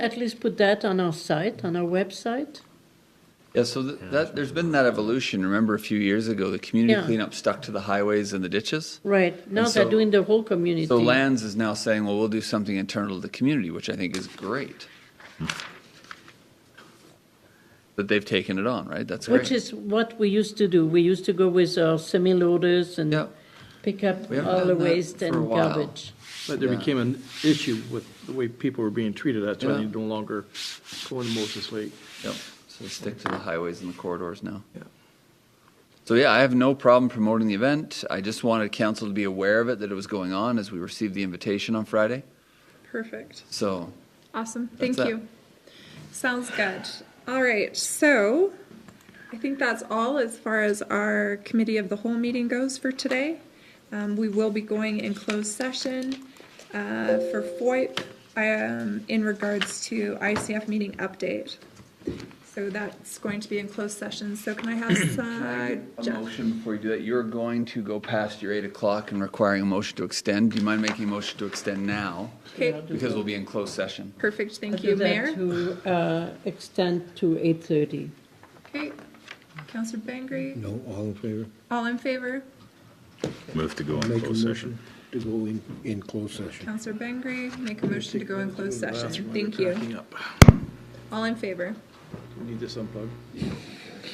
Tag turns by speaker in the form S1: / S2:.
S1: at least put that on our site, on our website.
S2: Yeah, so th- that, there's been that evolution. Remember a few years ago, the community
S1: Yeah.
S2: cleanup stuck to the highways and the ditches?
S1: Right, now
S2: And
S1: they're
S2: so-
S1: doing the whole community.
S2: So Lands is now saying, well, we'll do something internal to the community, which I think is great. That they've taken it on, right? That's
S1: Which
S2: great.
S1: is what we used to do. We used to go with our semi-loaders
S2: Yeah.
S1: and pick up
S2: We haven't
S1: all the
S2: done that
S1: waste
S2: for a
S1: and
S2: while.
S1: garbage.
S3: But there
S2: Yeah.
S3: became an issue with the way people were being treated, that's why they
S2: Yeah.
S3: no longer go into Moses Lake.
S2: Yep, so stick to the highways and the corridors now.
S3: Yeah.
S2: So yeah, I have no problem promoting the event. I just wanted council to be aware of it, that it was going on as we received the invitation on Friday.
S4: Perfect.
S2: So,
S4: Awesome. Thank
S2: that.
S4: you. Sounds good. All right. So I think that's all as far as our committee of the whole meeting goes for today. Um, we will be going in closed session uh, for FOIP um, in regards to ICF meeting update. So that's going to be in closed session. So can I have some?
S2: a motion before you do that, you're going to go past your eight o'clock and requiring a motion to extend. Do you mind making a motion to extend now?
S4: Okay.
S2: Because we'll be in closed session.
S4: Perfect.
S1: I'll
S4: Thank
S1: do
S4: you,
S1: that
S4: Mayor.
S1: To uh, extend to eight thirty.
S4: Okay. Councillor Bangry,
S5: No, all in favor?
S4: all in favor?
S6: Move to go in
S5: Make a
S6: closed session.
S5: motion to go in, in closed session.
S4: Counselor Bengry, make a motion to go in closed
S3: That's why
S4: session.
S3: they're
S4: Thank you.
S3: packing up.
S4: All in favor?
S3: We Need this unplugged.